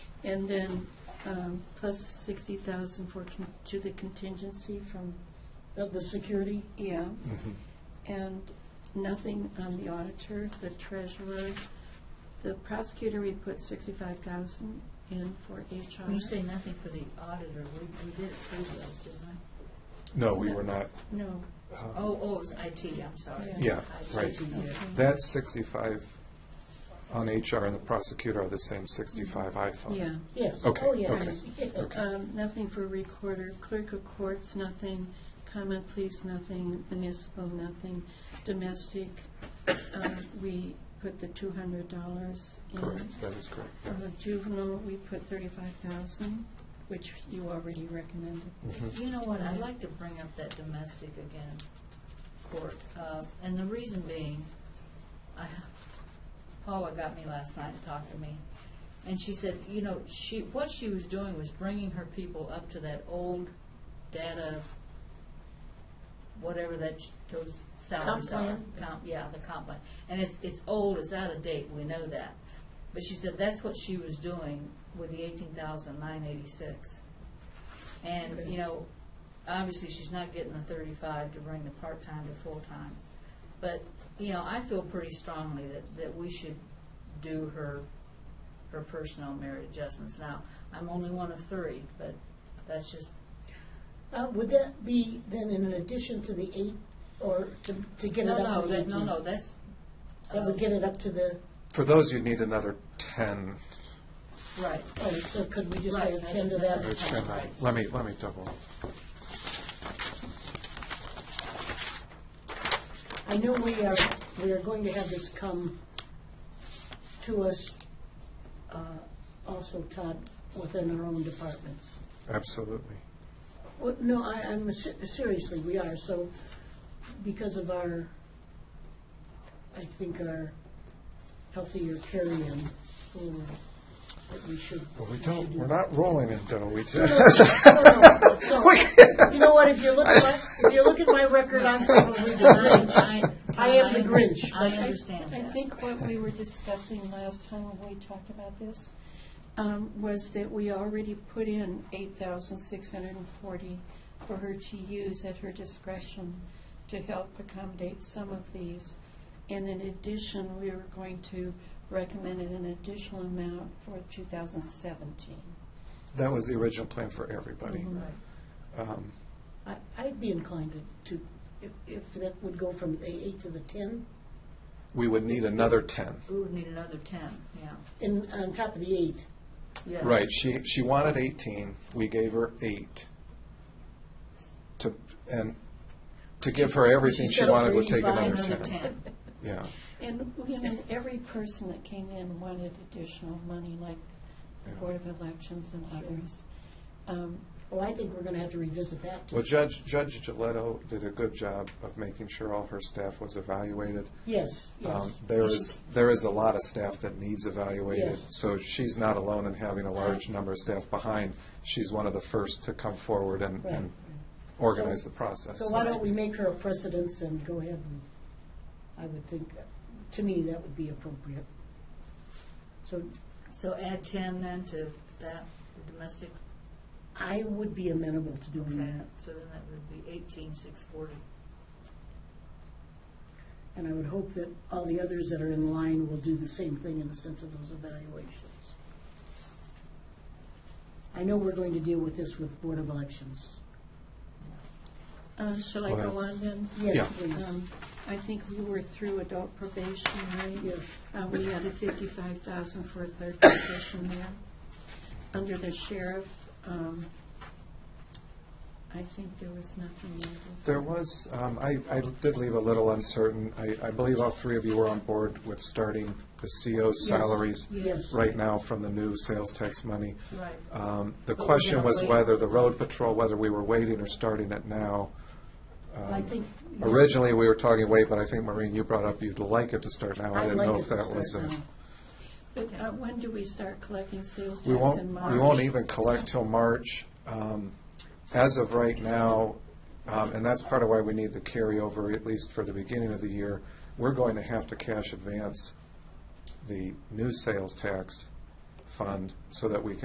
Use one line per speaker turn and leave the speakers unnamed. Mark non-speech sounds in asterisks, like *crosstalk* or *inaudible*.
And then um, plus 60,000 for, con- to the contingency from,
Of the security?
yeah. And nothing on the auditor, the treasurer. The prosecutor, we put 65,000 in for HR.
When you say nothing for the auditor, we, we did approve those, didn't we?
No, we were not.
No,
uh,
Oh, oh, it was IT, I'm sorry.
Yeah,
IT,
right.
yeah.
That 65 on HR and the prosecutor are the same 65 I thought.
yeah.
Yes.
Okay,
Oh, yes.
okay,
*laughs* Yes.
Um, Nothing for recorder, clerk of courts, nothing, comment please, nothing, municipal, nothing, domestic. um, We put the two hundred dollars in.
Correct, that is correct.
For the juvenile, we put thirty-five thousand, which you already recommended.
Mhm.
Mm-hmm.
You know what, I'd like to bring up that domestic again, court, uh, and the reason being, I, Paula got me last night to talk to me, and she said, you know, she, what she was doing was bringing her people up to that old data, whatever that, sh- those salaries
Comp
are.
plan?
Comp- yeah, the comp plan, and it's, it's old, it's out of date, we know that, but she said that's what she was doing with the eighteen thousand nine eighty-six. And, you know, obviously, she's not getting the thirty-five to bring the part-time to full-time. But, you know, I feel pretty strongly that, that we should do her, her personal merit adjustments. Now, I'm only one of three, but that's just,
Uh, Would that be then in addition to the eight, or to to get it
no,
up
no,
to the
that,
18?
no, no, that's,
That would get it up to the,
For those, you'd need another 10.
uh, right.
oh, so could we just
Right,
add 10 to
that's-
or
that?
that's-
10. Let me, let me double.
I know we are, we are going to have this come to us uh, also, Todd, within our own departments.
Absolutely.
Well, no, I, I'm, se- seriously, we are, so, because of our, I think our healthier carry-in, or that we should.
But we don't, we're not rolling in dough. We do.
So, You know what, if you look at my, if you look at my record, I'm probably denying.
I, I.
I am the Grinch.
I understand
I
that.
think what we were discussing last time when we talked about this um, was that we already put in eight thousand six hundred and forty for her to use at her discretion to help accommodate some of these. And in addition, we were going to recommend an additional amount for two thousand seventeen.
*laughs* That was the original plan for everybody.
Right.
Um,
I- I'd be inclined to, to, if, if that would go from the eight to the ten,
We would need another 10.
We would need another ten, yeah.
and on top of the eight,
Yeah.
Right, she, she wanted 18, we gave her eight. To, and to give her everything
She
she
said over
wanted would take
85,
another
Another
10.
ten.
Yeah,
And, you know, every person that came in wanted additional money, like the
Yeah.
Board of Elections and others. Um,
oh, I think we're gonna have to revisit that. too.
well, Judge, Judge Gilletto did a good job of making sure all her staff was evaluated.
Yes, yes.
Um, There is, there is a lot of staff that needs evaluated,
Yes.
so she's not alone in having a large number of staff behind. She's one of the first to come forward and,
Right.
and organize the process.
So why don't we make her a precedence and go ahead and, I would think, to me, that would be appropriate. So
So add ten then to that, the domestic,
I would be amenable to doing
okay,
that,
so then that would be eighteen six forty.
and I would hope that all the others that are in line will do the same thing in the sense of those evaluations. I know we're going to deal with this with Board of Elections.
Uh, Shall I
Well,
go
that's-
on then?
Yeah.
Yes, please.
Um, I think we were through adult probation, right?
Yes.
Uh, We added fifty-five thousand for a third position there. Under the sheriff, um, I think there was nothing needed.
There was, um, I, I did leave a little uncertain. I, I believe all three of you were on board with starting the CO's salaries
Yes.
right now from the new sales tax money.
Right.
Um, The
But we're
question
gonna
was
wait.
whether the road patrol, whether we were waiting or starting it now. Um,
I think.
Originally, we were talking wait, but I think, Maureen, you brought up you'd like it to start now. I
I'd
didn't
like
know
it
if
to
that
start
was a.
now.
But uh, when do we start collecting sales tax
We
in
won't,
March?
we won't even collect till March. Um, As of right now, um, and that's part of why we need the carryover, at least for the beginning of the year, we're going to have to cash advance the new sales tax fund so that we can